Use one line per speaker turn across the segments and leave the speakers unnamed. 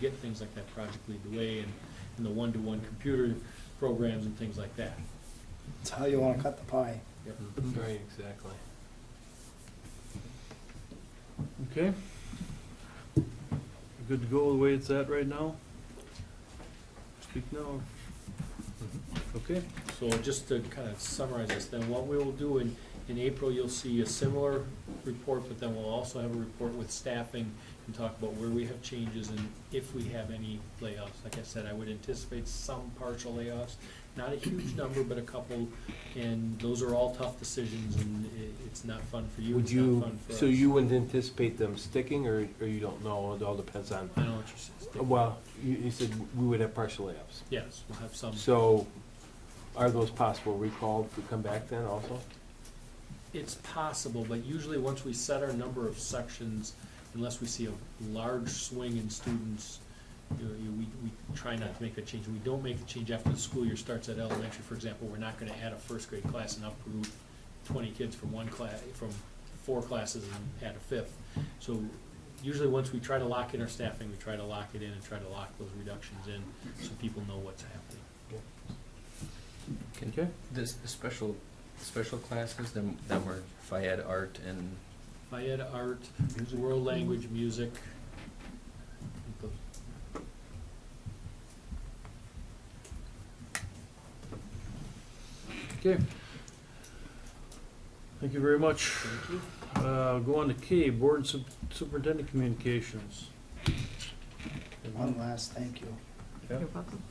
get things like that Project Lead the Way and, and the one-to-one computer programs and things like that.
It's how you wanna cut the pie.
Yep.
Right, exactly. Okay. We're Good to go the way it's at right now? Speak now. Okay,
So just to kind of summarize this, then what we will do in, in April, you'll see a similar report, but then we'll also have a report with staffing and talk about where we have changes and if we have any layoffs. Like I said, I would anticipate some partial layoffs, not a huge number, but a couple. And those are all tough decisions and i it's not fun for you,
would
it's not
you,
fun for us.
so you wouldn't anticipate them sticking, or, or you don't know, it all depends on,
I know what you're saying.
well, you, you said we would have partial layoffs.
Yes, we'll have some.
So, are those possible recalled to come back then also?
It's possible, but usually once we set our number of sections, unless we see a large swing in students, you know, you- we, we try not to make a change. We don't make a change after the school year starts at elementary, for example, we're not gonna add a first grade class and uproot twenty kids from one class, from four classes and add a fifth. So usually once we try to lock in our staffing, we try to lock it in and try to lock those reductions in so people know what's happening.
Can
Okay.
this the special, special classes then that were FIAD art and
Fayette art, world language, music. I think those
Okay. Thank you very much.
Thank you.
Uh, go on to K, Board Sup- Superintendent Communications.
One last thank you.
You're
welcome.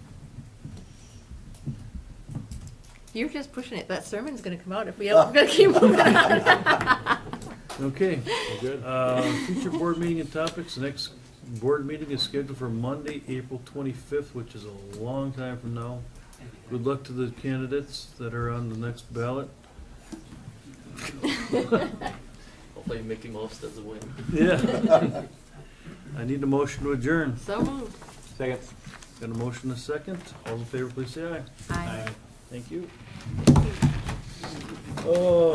You're just pushing it. That sermon's gonna come out if we,
Ah.
are gonna keep moving on.
Okay,
We're good.
uh, future board meeting and topics, The next board meeting is scheduled for Monday, April twenty-fifth, which is a long time from now. Good luck to the candidates that are on the next ballot.
Hopefully Mickey Mouse doesn't win.
Yeah. I need a motion to adjourn.
So moved.
Second. Got a motion and a second, all in favor, please say aye.
Aye.
Thank you. Oh.